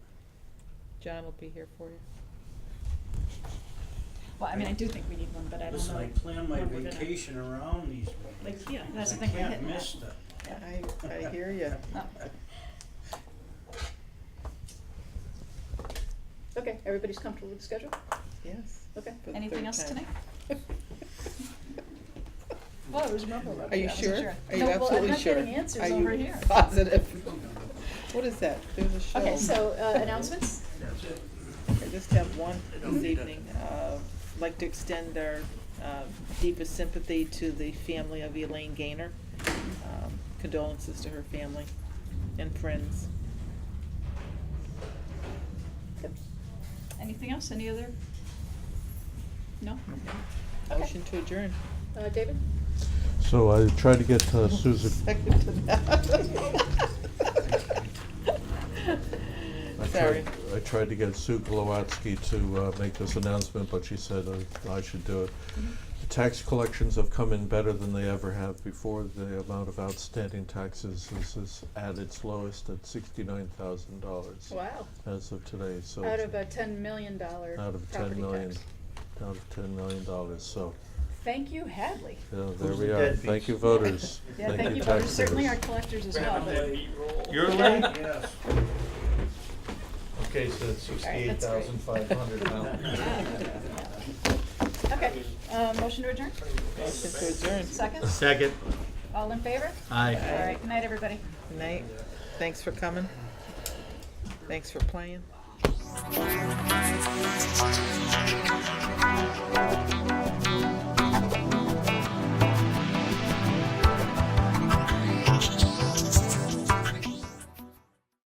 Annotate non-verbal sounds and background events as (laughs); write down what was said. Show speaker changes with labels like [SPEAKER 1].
[SPEAKER 1] John will be here for you.
[SPEAKER 2] Well, I mean, I do think we need one, but I don't know.
[SPEAKER 3] Listen, I plan my
[SPEAKER 2] when we're gonna-
[SPEAKER 3] vacation around these meetings.
[SPEAKER 2] Like, yeah, that's the
[SPEAKER 3] I
[SPEAKER 2] thing, we're
[SPEAKER 3] can't
[SPEAKER 2] hitting that.
[SPEAKER 3] miss them.
[SPEAKER 2] Yeah.
[SPEAKER 1] I, I hear you.
[SPEAKER 2] Oh.
[SPEAKER 4] Okay, everybody's comfortable with the schedule?
[SPEAKER 1] Yes.
[SPEAKER 4] Okay.
[SPEAKER 1] for the
[SPEAKER 2] Anything
[SPEAKER 1] third
[SPEAKER 2] else
[SPEAKER 1] time. (laughs)
[SPEAKER 2] tonight? Well, it was memorable.
[SPEAKER 1] Are you
[SPEAKER 2] I wasn't
[SPEAKER 1] sure? Are you
[SPEAKER 2] No, well, I'm
[SPEAKER 1] absolutely
[SPEAKER 2] not
[SPEAKER 1] sure?
[SPEAKER 2] getting answers
[SPEAKER 1] Are you
[SPEAKER 2] over here.
[SPEAKER 1] Positive. What is that? There's a show.
[SPEAKER 2] Okay, so, uh, announcements?
[SPEAKER 3] That's it.
[SPEAKER 1] I just have one this evening. Uh, Like to extend our uh, deepest sympathy to the family of Elaine Gaynor. Um, Condolences to her family and friends.
[SPEAKER 4] Good.
[SPEAKER 2] Anything else? Any other? No? Okay.
[SPEAKER 1] Motion to adjourn.
[SPEAKER 4] Uh, David?
[SPEAKER 5] So I tried to get uh,
[SPEAKER 2] (laughs)
[SPEAKER 1] (laughs)
[SPEAKER 5] Susan.
[SPEAKER 1] Second to
[SPEAKER 5] I
[SPEAKER 1] that. Sorry.
[SPEAKER 5] tried- I tried to get Sue Glowatsky to uh, make this announcement, but she said uh, I should do it.
[SPEAKER 2] Mm-hmm.
[SPEAKER 5] The tax collections have come in better than they ever have before. The amount of outstanding taxes is, is at its lowest at sixty-nine thousand dollars
[SPEAKER 4] Wow.
[SPEAKER 5] as of today, so.
[SPEAKER 4] Out of a ten million dollar
[SPEAKER 5] Out of
[SPEAKER 4] property
[SPEAKER 5] ten million,
[SPEAKER 4] tax.
[SPEAKER 5] out of ten million dollars, so,
[SPEAKER 4] Thank you, Hadley.
[SPEAKER 5] yeah, there
[SPEAKER 3] Who's
[SPEAKER 5] we
[SPEAKER 3] the
[SPEAKER 5] are.
[SPEAKER 3] deadbeats?
[SPEAKER 5] Thank you, voters.
[SPEAKER 2] (laughs) Yeah, thank you, voters. certainly our
[SPEAKER 5] taxpayers.
[SPEAKER 2] collectors as well.
[SPEAKER 3] Grab that meat roll.
[SPEAKER 6] You're late.
[SPEAKER 3] Yes.
[SPEAKER 6] Okay, so it's sixty-eight thousand five hundred now.
[SPEAKER 2] Okay, uh, motion to adjourn?
[SPEAKER 1] Motion to adjourn.
[SPEAKER 2] Second?
[SPEAKER 6] Second.
[SPEAKER 2] All in favor?
[SPEAKER 6] Aye.
[SPEAKER 2] All right, good night, everybody.
[SPEAKER 1] Good night. Thanks for coming. Thanks for playing.